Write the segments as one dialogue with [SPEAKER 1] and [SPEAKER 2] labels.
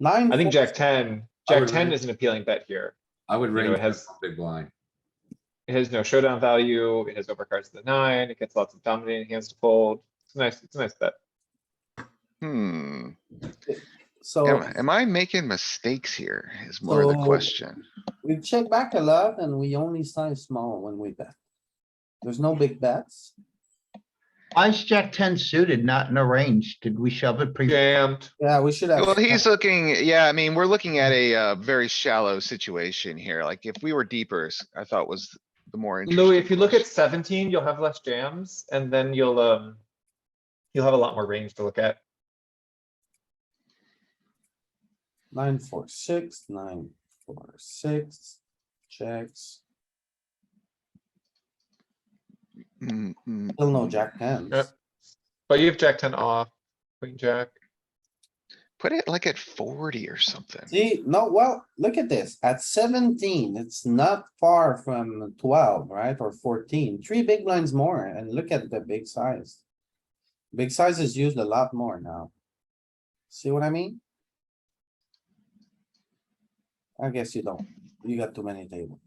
[SPEAKER 1] Nine.
[SPEAKER 2] I think
[SPEAKER 1] four-
[SPEAKER 2] Jack ten,
[SPEAKER 3] I
[SPEAKER 2] Jack
[SPEAKER 3] would
[SPEAKER 2] ten
[SPEAKER 3] raise-
[SPEAKER 2] is an appealing bet here.
[SPEAKER 3] I would
[SPEAKER 2] know, it
[SPEAKER 3] range
[SPEAKER 2] has-
[SPEAKER 3] from big blind.
[SPEAKER 2] It has no showdown value, it has overcards to the nine, it gets lots of dominating hands to fold. It's a nice, it's a nice bet.
[SPEAKER 4] Hmm,
[SPEAKER 1] So
[SPEAKER 4] am, am I making mistakes here is more of the
[SPEAKER 1] So-
[SPEAKER 4] question.
[SPEAKER 1] we check back a lot and we only size small when we bet. There's no big bets.
[SPEAKER 5] Why is Jack ten suited, not in a range? Did we shove it pre?
[SPEAKER 2] Jammed,
[SPEAKER 1] Yeah, we should have.
[SPEAKER 4] Well, he's looking, yeah, I mean, we're looking at a, uh, very shallow situation here. Like if we were deeper, s- I thought was the more.
[SPEAKER 2] Louis, if you
[SPEAKER 4] interesting
[SPEAKER 2] look at
[SPEAKER 4] question.
[SPEAKER 2] seventeen, you'll have less jams and then you'll, um. You'll have a lot more range to look at.
[SPEAKER 1] Nine, four, six, nine, four, six, checks,
[SPEAKER 4] Mm, mm.
[SPEAKER 1] still no jack hands.
[SPEAKER 2] Yep. But you have Jack ten off, queen jack.
[SPEAKER 4] Put it like at forty or something.
[SPEAKER 1] See, no, well, look at this, at seventeen, it's not far from twelve, right, or 14. Three big blinds more, and look at the big size. Big size is used a lot more now. See what I mean? I guess you don't, you got too many tables.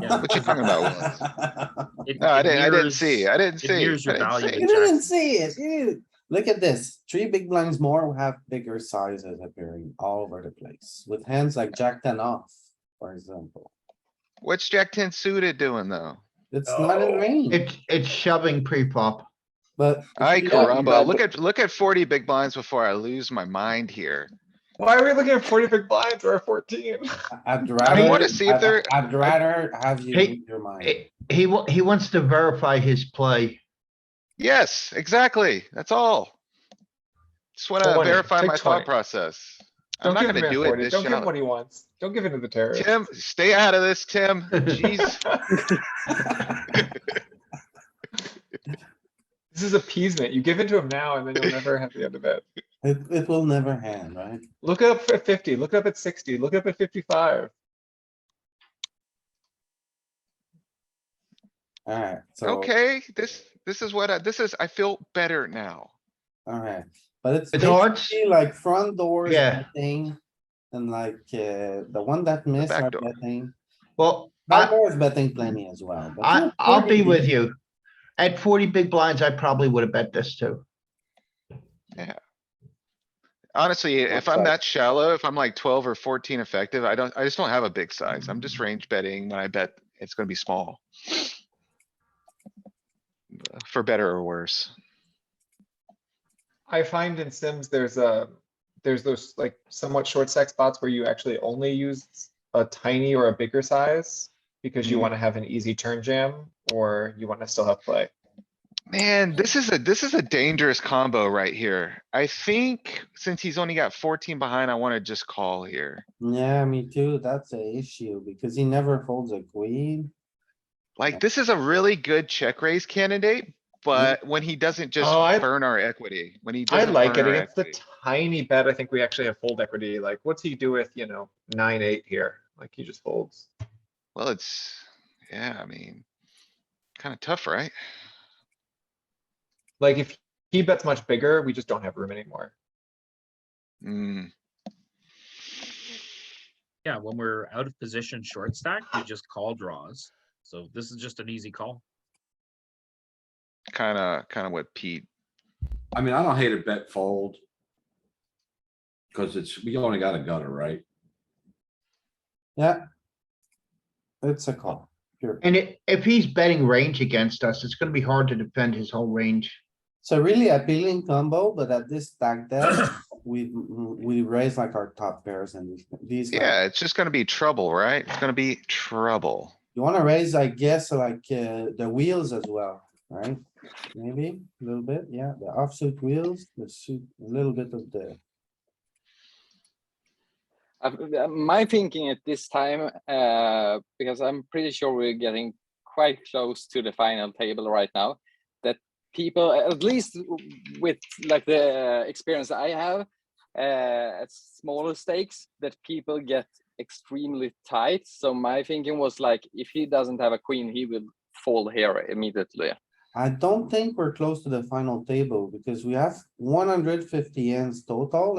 [SPEAKER 6] Yeah.
[SPEAKER 4] What you talking about?
[SPEAKER 6] It-
[SPEAKER 4] No, I
[SPEAKER 6] it
[SPEAKER 4] didn't, I didn't
[SPEAKER 6] mirrors-
[SPEAKER 4] see, I didn't see.
[SPEAKER 6] mirrors your
[SPEAKER 4] I didn't
[SPEAKER 6] value.
[SPEAKER 4] see.
[SPEAKER 1] You didn't see it, you, didn't- look at this, three big blinds more have bigger sizes appearing all over the place, with hands like jack ten off, for example.
[SPEAKER 4] What's Jack ten suited doing though?
[SPEAKER 1] It's not in
[SPEAKER 4] Oh.
[SPEAKER 2] No.
[SPEAKER 1] range,
[SPEAKER 5] It's, it's shoving pre-flop.
[SPEAKER 1] but
[SPEAKER 4] I
[SPEAKER 1] Yeah,
[SPEAKER 4] caramba,
[SPEAKER 1] but-
[SPEAKER 4] look at, look at forty big blinds before I lose my mind here.
[SPEAKER 2] Why are we looking at forty big blinds or fourteen?
[SPEAKER 1] I'd
[SPEAKER 4] I
[SPEAKER 1] rather.
[SPEAKER 4] wanna see if
[SPEAKER 1] I'd-
[SPEAKER 4] they're,
[SPEAKER 1] I'd rather have you
[SPEAKER 5] Hey,
[SPEAKER 1] read your mind.
[SPEAKER 5] He, he wa- he wants to verify his play.
[SPEAKER 4] yes, exactly, that's all. Just wanna
[SPEAKER 2] 20,
[SPEAKER 4] verify
[SPEAKER 2] take
[SPEAKER 4] my
[SPEAKER 2] 20.
[SPEAKER 4] thought process. I'm
[SPEAKER 2] Don't
[SPEAKER 4] not
[SPEAKER 2] give him
[SPEAKER 4] gonna
[SPEAKER 2] at
[SPEAKER 4] do it
[SPEAKER 2] forty,
[SPEAKER 4] this
[SPEAKER 2] don't give him
[SPEAKER 4] shallow.
[SPEAKER 2] what he wants, don't give in to the terror.
[SPEAKER 4] Tim, stay out of this, Tim. Jeez.
[SPEAKER 2] This is appeasement, you give in to him now and then you'll never have the end of it.
[SPEAKER 1] It, it will never end, right?
[SPEAKER 2] Look up at fifty, look up at sixty, look up at fifty-five.
[SPEAKER 1] Alright, so,
[SPEAKER 4] Okay, this, this is what I, this is, I feel better now.
[SPEAKER 1] alright, but it's
[SPEAKER 5] It's hard.
[SPEAKER 1] basically like front doors
[SPEAKER 5] Yeah.
[SPEAKER 1] betting. And like, uh, the one that missed
[SPEAKER 4] back
[SPEAKER 1] are
[SPEAKER 4] door.
[SPEAKER 1] betting,
[SPEAKER 5] Well,
[SPEAKER 1] back
[SPEAKER 5] I,
[SPEAKER 1] door is betting plenty as well. but
[SPEAKER 5] I,
[SPEAKER 1] not
[SPEAKER 5] I'll
[SPEAKER 1] 40.
[SPEAKER 5] be with you. At forty big blinds, I probably would have bet this too.
[SPEAKER 4] Honestly, if
[SPEAKER 1] Upside.
[SPEAKER 4] I'm that shallow, if I'm like twelve or fourteen effective, I don't, I just don't have a big size. I'm just range betting when I bet it's gonna be small. For better or worse.
[SPEAKER 2] I find in Sims, there's a, there's those like somewhat short stack spots where you actually only use a tiny or a bigger size. Because you
[SPEAKER 4] Mhm.
[SPEAKER 2] wanna have an easy turn jam or you wanna still have play.
[SPEAKER 4] Man, this is a, this is a dangerous combo right here. I think since he's only got fourteen behind, I wanna just call here.
[SPEAKER 1] Yeah, me too, that's a issue, because he never folds a queen.
[SPEAKER 4] Like, this is a really good check raise candidate, but when he doesn't just
[SPEAKER 2] Mm-hmm. Oh, I-
[SPEAKER 4] burn our equity, when he
[SPEAKER 2] I
[SPEAKER 4] doesn't
[SPEAKER 2] like it
[SPEAKER 4] burn our
[SPEAKER 2] against the
[SPEAKER 4] equity.
[SPEAKER 2] tiny bet. I think we actually have fold equity. Like, what's he do with, you know, nine, eight here? Like, he just folds.
[SPEAKER 4] Well, it's, yeah, I mean, kinda tough, right?
[SPEAKER 2] Like, if he bets much bigger, we just don't have room anymore.
[SPEAKER 4] Mm,
[SPEAKER 6] Yeah, when we're out of position short stack, we just call draws. So this is just an easy call.
[SPEAKER 4] kinda, kinda what Pete,
[SPEAKER 3] I mean, I don't hate a bet fold. Cause it's, we only got a gutter, right?
[SPEAKER 1] Yeah. It's a call, pure.
[SPEAKER 5] And i- if he's betting range against us, it's gonna be hard to defend his whole range.
[SPEAKER 1] It's a really appealing combo, but at this stack depth, we, we raise like our top pairs and these. like,
[SPEAKER 4] yeah, it's just gonna be trouble, right? It's gonna be trouble.
[SPEAKER 1] You wanna raise, I guess, like, uh, the wheels as well, right? Maybe a little bit, yeah, the offsuit wheels, the suit, a little bit of the,
[SPEAKER 7] Uh, uh, My thinking at this time, uh, because I'm pretty sure we're getting quite close to the final table right now, that people, at least w- with like the uh, experience I have uh, at smaller stakes, that people get extremely tight. So my thinking was like, if he doesn't have a queen, he will fall here immediately.
[SPEAKER 1] I don't think we're close to the final table because we have one hundred fifty ends total